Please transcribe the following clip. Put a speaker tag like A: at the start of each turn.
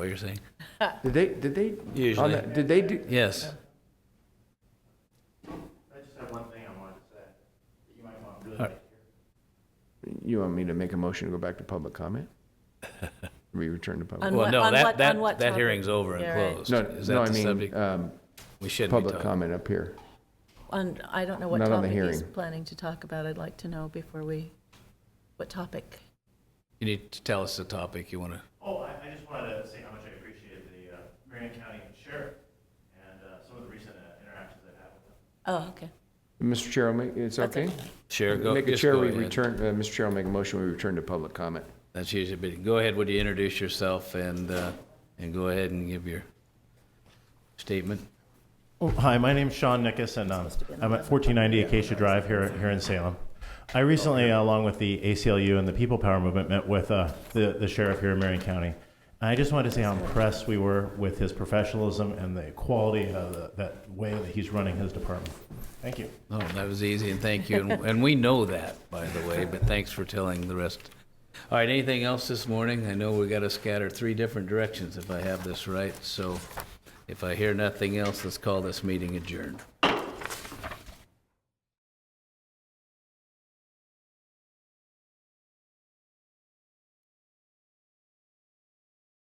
A: what you're saying?
B: Did they, did they? on
A: Usually.
B: that- Did they do,
A: Yes.
C: I just have one thing I wanted to say, that you might want to do
A: All
C: later.
A: right.
B: you want me to make a motion to go back to public comment? We return to public?
D: On
A: Well,
D: what-
A: no,
D: on
A: that,
D: what-
A: that,
D: on what
A: that
D: topic?
A: hearing's over
D: Yeah,
A: and
D: right.
A: closed.
B: No,
A: Is
B: no,
A: that
B: I
A: the
B: mean,
A: subject?
B: um,
A: We shouldn't be
B: public
A: talking.
B: comment up here.
D: On, I don't know what
B: Not on the
D: topic he's
B: hearing.
D: planning to talk about. I'd like to know before we, what topic?
A: You need to tell us the topic you want to,
C: Oh, I, I just wanted to say how much I appreciated the, uh, Marion County Sheriff and, uh, some of the recent uh, interactions I've had with them.
D: Oh, okay.
B: Mr. Chair, I'll make- it's
D: That's
B: okay?
A: share, go,
B: Make a
A: just
B: chair,
A: go
B: we
A: ahead.
B: return, uh, Mr. Chair, I'll make a motion, we return to public comment.
A: That's usually, but go ahead, would you introduce yourself and, uh, and go ahead and give your statement?
C: Oh, Hi, my name's Sean Nickus, and um, I'm at 1490 Acacia Drive here, here in Salem. I recently, uh, along with the ACLU and the People Power Movement, met with uh, the the sheriff here in Marion County. And I just wanted to say how impressed we were with his professionalism and the quality of the- that way that he's running his department. Thank you.
A: No, Oh, that was easy, and thank you. And- And we know that, by the way, but thanks for telling the rest. All right, anything else this morning? I know we got to scatter three different directions if I have this right. So if I hear nothing else, let's call this meeting adjourned.